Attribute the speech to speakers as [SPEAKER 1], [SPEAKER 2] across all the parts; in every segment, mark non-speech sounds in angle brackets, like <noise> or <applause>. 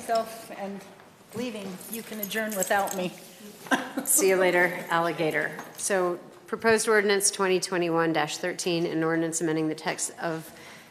[SPEAKER 1] myself and leaving, you can adjourn without me.
[SPEAKER 2] See you later, alligator. So proposed ordinance 2021-13, an ordinance amending the text of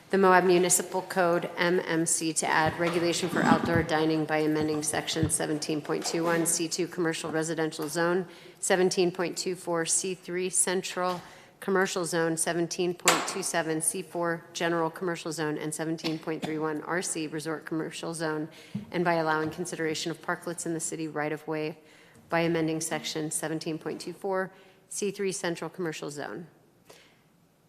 [SPEAKER 2] the Moab Municipal Code, MMC, to add regulation for outdoor dining by amending section 17.21 C2 Commercial Residential Zone, 17.24 C3 Central Commercial Zone, 17.27 C4 General Commercial Zone, and 17.31 RC Resort Commercial Zone, and by allowing consideration of parklets in the city right-of-way by amending Section 17.24, C3 Central Commercial Zone.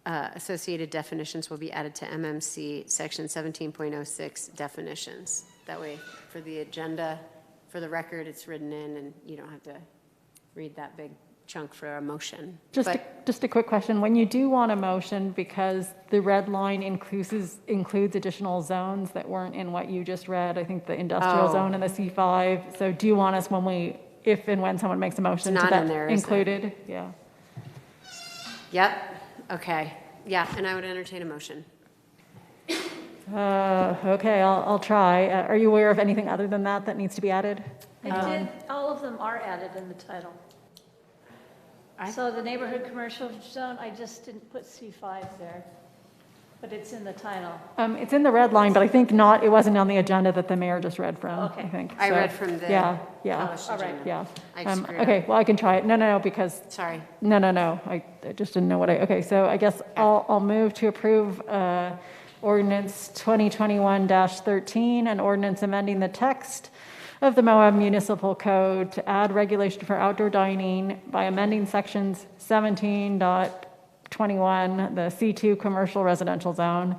[SPEAKER 2] Uh, Associated definitions will be added to MMC Section 17.06 definitions. That way, for the agenda, for the record, it's written in, and you don't have to read that big chunk for a motion.
[SPEAKER 3] Just, a-
[SPEAKER 2] But-
[SPEAKER 3] just a quick question. When you do want a motion, because the red line includes, includes additional zones that weren't in what you just read, I think the industrial
[SPEAKER 2] Oh.
[SPEAKER 3] zone and the C5. So do you want us when we, if and when someone makes a motion to
[SPEAKER 2] not in
[SPEAKER 3] that
[SPEAKER 2] there, is it?
[SPEAKER 3] included? Yeah.
[SPEAKER 2] Yep, okay, yeah, and I would entertain a motion.
[SPEAKER 3] Uh, Okay, I'll, I'll try. Uh, Are you aware of anything other than that that needs to be added?
[SPEAKER 4] I did, all of them are added in the title.
[SPEAKER 2] I-
[SPEAKER 4] So the neighborhood commercial zone, I just didn't put C5 there, but it's in the title.
[SPEAKER 3] Um, It's in the red line, but I think not, it wasn't on the agenda that the mayor just read from, I
[SPEAKER 4] Okay.
[SPEAKER 3] think.
[SPEAKER 2] I
[SPEAKER 3] So,
[SPEAKER 2] read from the
[SPEAKER 3] Yeah, yeah,
[SPEAKER 2] Published
[SPEAKER 4] all right.
[SPEAKER 2] agenda.
[SPEAKER 3] yeah.
[SPEAKER 2] I
[SPEAKER 3] Um,
[SPEAKER 2] screwed up.
[SPEAKER 3] Okay, well, I can try it. No, no, no, because
[SPEAKER 2] Sorry,
[SPEAKER 3] No, no, no, I I just didn't know what I, okay, so I guess I'll, I'll move to approve uh, ordinance 2021-13, an ordinance amending the text of the Moab Municipal Code to add regulation for outdoor dining by amending sections 17.21, the C2 Commercial Residential Zone,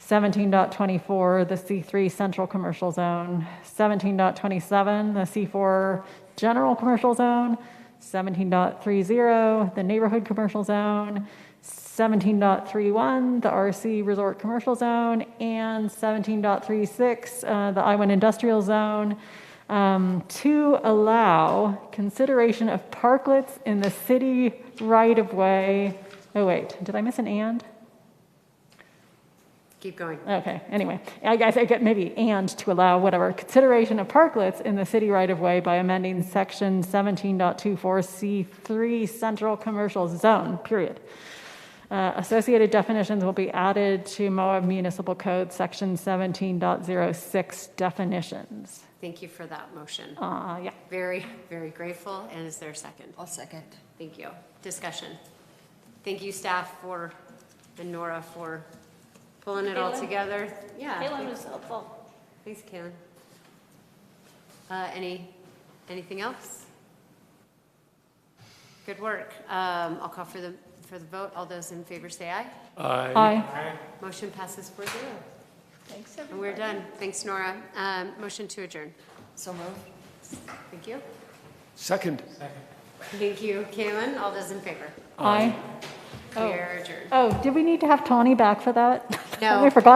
[SPEAKER 3] 17.24, the C3 Central Commercial Zone, 17.27, the C4 General Commercial Zone, 17.30, the Neighborhood Commercial Zone, 17.31, the RC Resort Commercial Zone, and 17.36, uh, the I-1 Industrial Zone, um, to allow consideration of parklets in the city right-of-way. Oh, wait, did I miss an and?
[SPEAKER 2] keep going.
[SPEAKER 3] Okay, anyway, I guess I get maybe and to allow whatever consideration of parklets in the city right of way by amending section 17.24 C3 Central Commercial Zone, period. Uh, Associated definitions will be added to Moab Municipal Code, section 17.06 definitions.
[SPEAKER 2] Thank you for that motion.
[SPEAKER 3] Uh, yeah.
[SPEAKER 2] Very, very grateful, and is there a second?
[SPEAKER 5] I'll second.
[SPEAKER 2] Thank you. Discussion. Thank you, staff, for, and Nora for pulling it all
[SPEAKER 4] Kaylin?
[SPEAKER 2] together. Yeah.
[SPEAKER 4] Kalen
[SPEAKER 2] thanks-
[SPEAKER 4] was helpful.
[SPEAKER 2] Thanks, Kaylin. Uh, any, anything else? Good work. Um, I'll call for the, for the vote. All those in favor say aye.
[SPEAKER 3] Aye.
[SPEAKER 2] Motion passes four zero.
[SPEAKER 4] Thanks,
[SPEAKER 2] And we're done. Thanks, Nora. Um, motion to adjourn.
[SPEAKER 5] So moved.
[SPEAKER 2] Thank you.
[SPEAKER 6] Second.
[SPEAKER 2] Thank you, Kaylin. All those in favor?
[SPEAKER 3] Aye.
[SPEAKER 2] We are adjourned.
[SPEAKER 3] Oh, did we need to have Tawny back for that?
[SPEAKER 2] No.
[SPEAKER 3] <laughs> We forgot